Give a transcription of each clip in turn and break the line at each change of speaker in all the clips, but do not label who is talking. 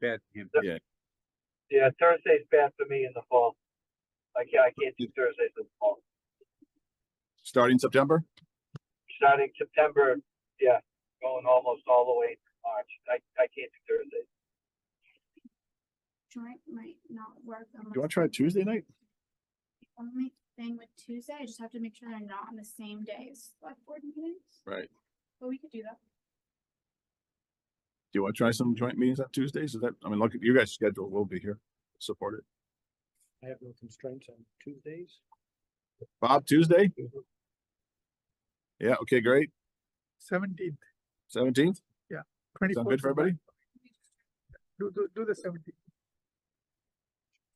bad for him.
Yeah.
Yeah, Thursday's bad for me in the fall. I can't, I can't do Thursdays in the fall.
starting September?
Starting September, yeah, going almost all the way to March. I, I can't do Thursdays.
joint might not work.
Do you want to try Tuesday night?
Only thing with Tuesday, I just have to make sure they're not on the same day as select board meetings,
Right.
but we could do that.
Do you want to try some joint meetings on Tuesdays? Is that, I mean, look at you guys' schedule. We'll be here. Support it.
I have no constraints on Tuesdays.
Bob, Tuesday? Yeah, okay, great.
Seventeenth,
Seventeenth?
twenty.
Sound good for everybody?
Do, do, do the seventeenth.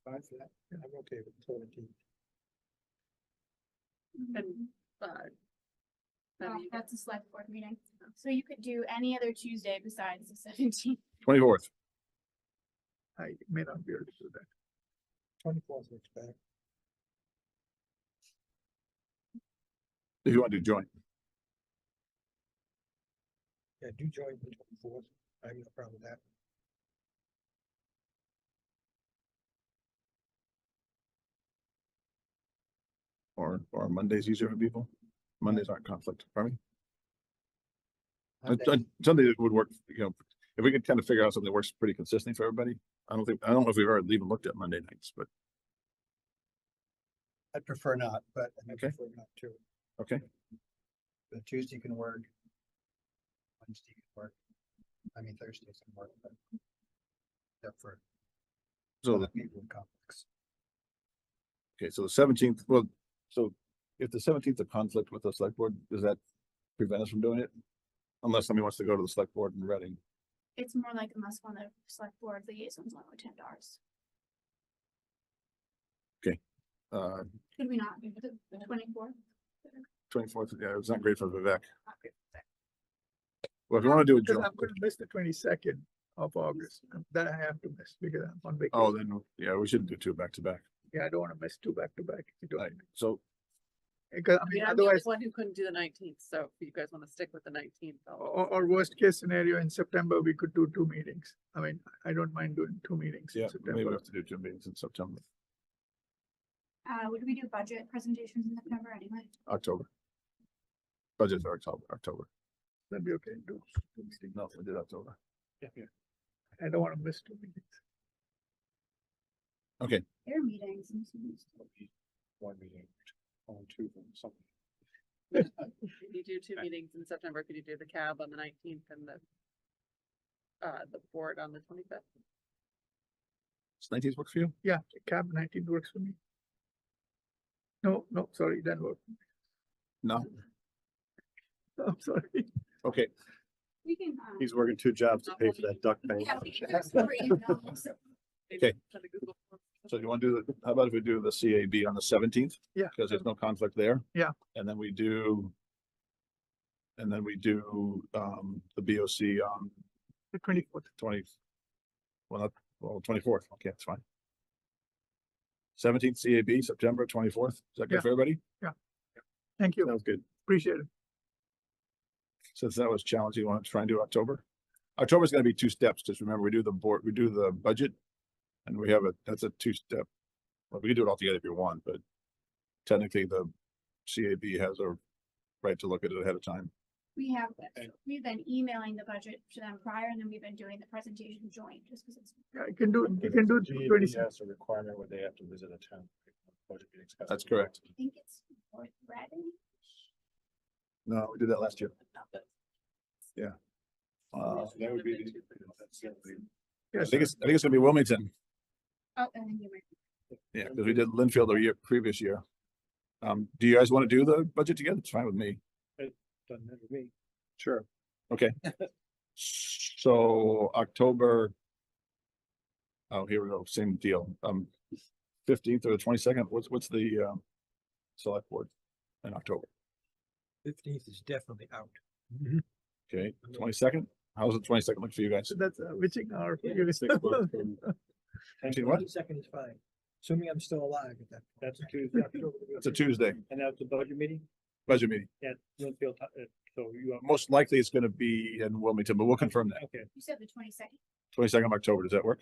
Fine for that. I'm okay with seventeen.
Mhm.
but.
Uh, That's a select board meeting, so you could do any other Tuesday besides the seventeenth.
Twenty-fourth.
I may not be able to do that.
Twenty-fourth looks better.
If you want to do joint,
Yeah, do join the twenty-fourth. I have no problem with that.
or, or Monday's easier for people. Mondays aren't conflict, pardon me? Uh, uh, Something that would work, you know, if we could kind of figure out something that works pretty consistently for everybody. I don't think, I don't know if we've ever even looked at Monday nights, but
I'd prefer not, but I
Okay.
prefer not to.
Okay.
But Tuesday can work. Wednesday can work. I mean, Thursday can work, but. Except for
so, the-
people in conflicts.
okay, so the seventeenth, well, so if the seventeenth of conflict with the select board, does that prevent us from doing it? Unless somebody wants to go to the select board in Reading.
It's more like unless one of the select board liaisons only attend ours.
Uh,
Could we not do the twenty-fourth?
twenty-fourth, yeah, it's not great for Vivek. Well, if you want to do a
Because
joint,
I'm gonna miss the twenty-second of August, that I have to miss because I'm on
oh,
vacation.
then, yeah, we shouldn't do two back to back.
Yeah, I don't wanna miss two back to back. if you don't
Right,
mind.
so,
Because I
I
mean,
mean, I'm the only
otherwise,
one who couldn't do the nineteenth, so if you guys wanna stick with the nineteenth,
or, or worst case scenario, in September, we could do two meetings. I mean, I don't mind doing two meetings
yeah,
in
maybe we
September.
have to do two meetings in September,
Uh, would we do budget presentations in September anyway?
October. Budget's are October, October.
That'd be okay, do,
No, we did October.
I don't wanna miss two meetings.
Their meetings. I'm assuming.
One meeting, on two, something.
if you do two meetings in September, could you do the cab on the nineteenth and the uh, the board on the twenty-fifth?
Does nineteenth work for you?
Yeah, cab nineteen works for me. No, no, sorry, that work.
No,
I'm sorry.
okay,
We can, um.
He's working two jobs to pay for that duck bank.
yeah, we can do separate emails.
Okay. so you want to do, the? how about if we do the CAB on the seventeenth?
Yeah.
Because there's no conflict there.
Yeah.
And then we do. And then we do, um, the BOC on
The twenty-fourth,
twenty. Well, not, well, twenty-fourth, okay, that's fine. Seventeenth CAB, September twenty-fourth, is that
Yeah.
good for everybody?
thank you,
Sounds good.
appreciate it.
Since that was challenging, you want to try and do October? October's gonna be two steps, just remember, we do the board, we do the budget. And we have a, that's a two-step, well, we can do it all together if you want, but technically the CAB has a right to look at it ahead of time.
We have,
Okay.
we've been emailing the budget to them prior and then we've been doing the presentation joint just because it's,
Yeah, I can do, you can do twenty-six.
That's a requirement where they have to visit a town. budget meeting.
That's correct.
I think it's worth reading.
No, we did that last year. Uh,
Uh,
That would be.
I think it's, I think it's gonna be Wilmington.
Oh, and then you might.
Yeah, because we did Linfield the year, previous year. Um, do you guys want to do the budget together? It's fine with me.
Doesn't matter to me.
Sure.
So October. Oh, here we go, same deal, um, fifteenth or the twenty-second, what's, what's the, um, select board in October,
Fifteenth is definitely out.
okay, twenty-second? How's the twenty-second look for you guys?
So that's uh, witching hour. for
Yeah,
you.
Actually, what?
Second is fine, assuming I'm still alive at that. That's a Tuesday.
It's a Tuesday,
And that's a budget meeting?
budget meeting,
Yeah, Linfield, uh, so you are,
most likely it's gonna be in Wilmington, but we'll confirm that,
okay,
You said the twenty-second.
Twenty-second of October, does that work?